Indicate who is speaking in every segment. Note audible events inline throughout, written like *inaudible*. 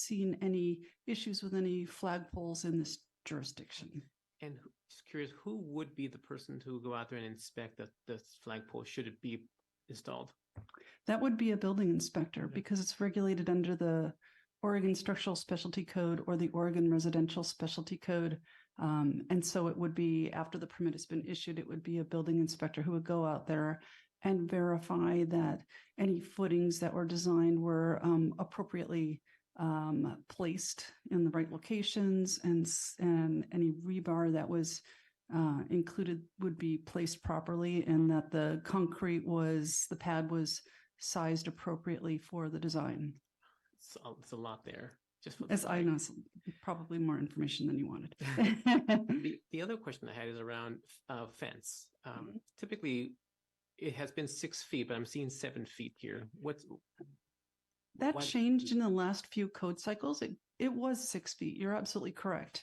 Speaker 1: seen any issues with any flagpoles in this jurisdiction.
Speaker 2: And who- just curious, who would be the person to go out there and inspect the, the flagpole? Should it be installed?
Speaker 1: That would be a building inspector
Speaker 2: Okay.
Speaker 1: because it's regulated under the Oregon Structural Specialty Code or the Oregon Residential Specialty Code. Um, and so it would be after the permit has been issued, it would be a building inspector who would go out there and verify that any footings that were designed were um, appropriately um, placed in the right locations and s- and any rebar that was uh, included would be placed properly and that the concrete was the pad was sized appropriately for the design.
Speaker 2: It's, a- it's a lot there. Just for the
Speaker 1: As I
Speaker 2: flag.
Speaker 1: know, it's probably more information than you wanted.
Speaker 2: The, the other question I had is around uh, fence.
Speaker 1: Mm-hmm.
Speaker 2: Um, typically, it has been six feet, but I'm seeing seven feet here. What's
Speaker 1: that
Speaker 2: why-
Speaker 1: changed in the last few code cycles. It it was six feet. You're absolutely correct,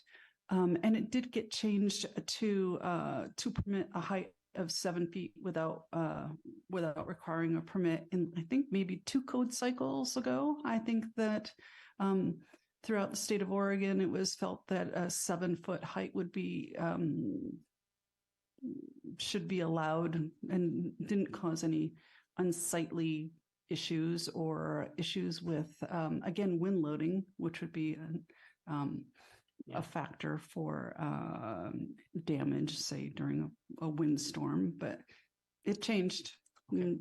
Speaker 1: um, and it did get changed to uh, to permit a height of seven feet without uh, without requiring a permit. And I think maybe two code cycles ago, I think that. Um, Throughout the state of Oregon, it was felt that a seven foot height would be um, should be allowed and didn't cause any unsightly issues or issues with, um, again, wind loading, which would be an, um,
Speaker 2: Yeah.
Speaker 1: a factor for um, damage, say during a, a windstorm, but it changed.
Speaker 2: Okay.
Speaker 1: Mm,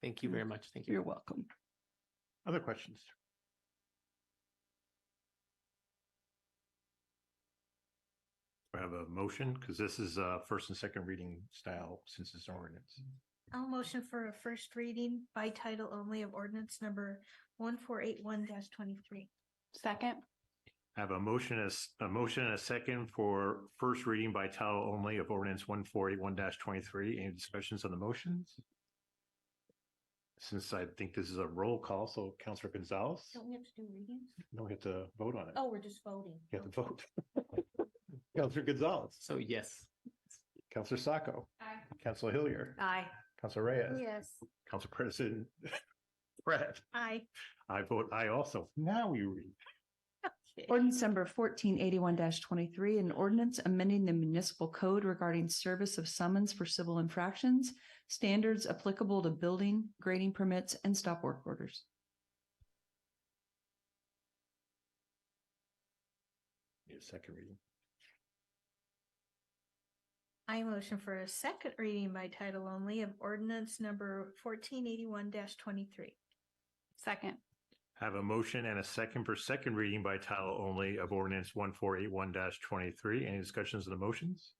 Speaker 2: Thank you very much. Thank
Speaker 1: Mm-hmm. You're
Speaker 2: you.
Speaker 1: welcome.
Speaker 3: Other questions? Do I have a motion? Because this is a first and second reading style since it's an ordinance.
Speaker 4: I'll motion for a first reading by title only of ordinance number one four eight one twenty-three.
Speaker 1: Second.
Speaker 3: I have a motion as a motion and a second for first reading by title only of ordinance one four eight one twenty-three. Any discussions on the motions? Since I think this is a roll call, so Counselor Gonzalez,
Speaker 4: Don't we have to do readings?
Speaker 3: no, we have to vote on it.
Speaker 4: Oh, we're just voting.
Speaker 3: You have to vote. *laughs* Counselor Gonzalez,
Speaker 2: So yes,
Speaker 3: Counselor Sacco,
Speaker 4: Aye.
Speaker 3: Counselor Hillier,
Speaker 4: Aye.
Speaker 3: Counselor Reyes.
Speaker 4: Yes.
Speaker 3: Council President *laughs* Brett,
Speaker 4: Aye.
Speaker 3: I vote I also. Now we read.
Speaker 5: Ordinance number fourteen eighty-one twenty-three, an ordinance amending the municipal code regarding service of summons for civil infractions, standards applicable to building, grading permits, and stop work orders.
Speaker 3: Need a second reading.
Speaker 4: I motion for a second reading by title only of ordinance number fourteen eighty-one twenty-three.
Speaker 1: Second.
Speaker 3: Have a motion and a second for second reading by title only of ordinance one four eight one twenty-three. Any discussions of the motions?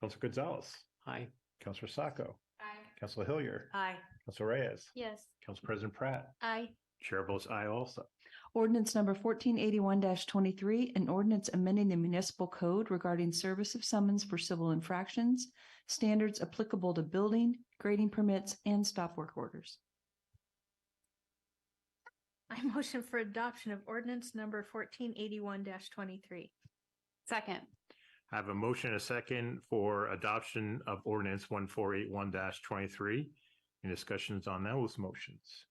Speaker 3: Council Gonzalez,
Speaker 2: hi.
Speaker 3: Councilor Sacco,
Speaker 4: Aye.
Speaker 3: Council Hillier,
Speaker 4: Aye.
Speaker 3: Council Reyes,
Speaker 4: Yes.
Speaker 3: Council President Pratt,
Speaker 4: Aye.
Speaker 3: Chair votes I also.
Speaker 5: Ordinance number fourteen eighty-one twenty-three, an ordinance amending the municipal code regarding service of summons for civil infractions, standards applicable to building, grading permits, and stop work orders.
Speaker 4: I motion for adoption of ordinance number fourteen eighty-one twenty-three.
Speaker 1: Second.
Speaker 3: Have a motion and a second for adoption of ordinance one four eight one twenty-three. Any discussions on those motions?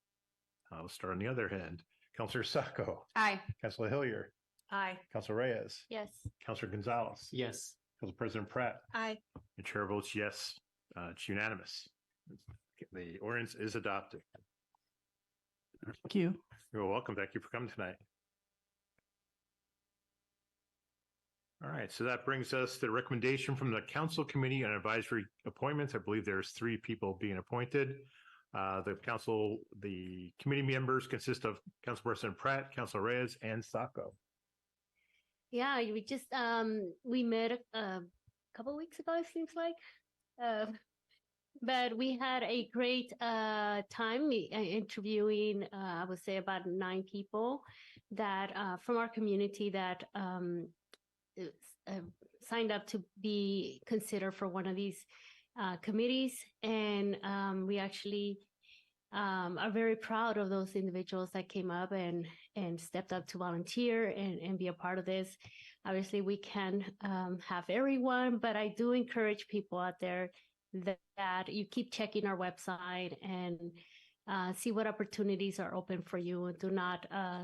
Speaker 3: I'll start on the other hand. Counselor Sacco.
Speaker 5: Aye.
Speaker 3: Counselor Hillier,
Speaker 4: Aye.
Speaker 3: Counselor Reyes,
Speaker 4: Yes.
Speaker 3: Counselor Gonzalez,
Speaker 2: Yes.
Speaker 3: Council President Pratt,
Speaker 4: Aye.
Speaker 3: the chair votes yes. Uh, it's unanimous. The ordinance is adopted.
Speaker 1: Thank you.
Speaker 3: You're welcome. Thank you for coming tonight. All right, so that brings us to the recommendation from the Council Committee on Advisory Appointments. I believe there's three people being appointed. Uh, the council, the committee members consist of Councilperson Pratt, Council Reyes, and Sacco.
Speaker 6: Yeah, we just um we met a a couple weeks ago, it seems like. Uh, but we had a great uh time i- uh, interviewing uh, I would say about nine people that uh, from our community that um uh, s- uh, signed up to be considered for one of these uh, committees, and um, we actually um, are very proud of those individuals that came up and and stepped up to volunteer and and be a part of this obviously we can um, have everyone but i do encourage people out there that, that you keep checking our website and uh, see what opportunities are open for you and do not uh,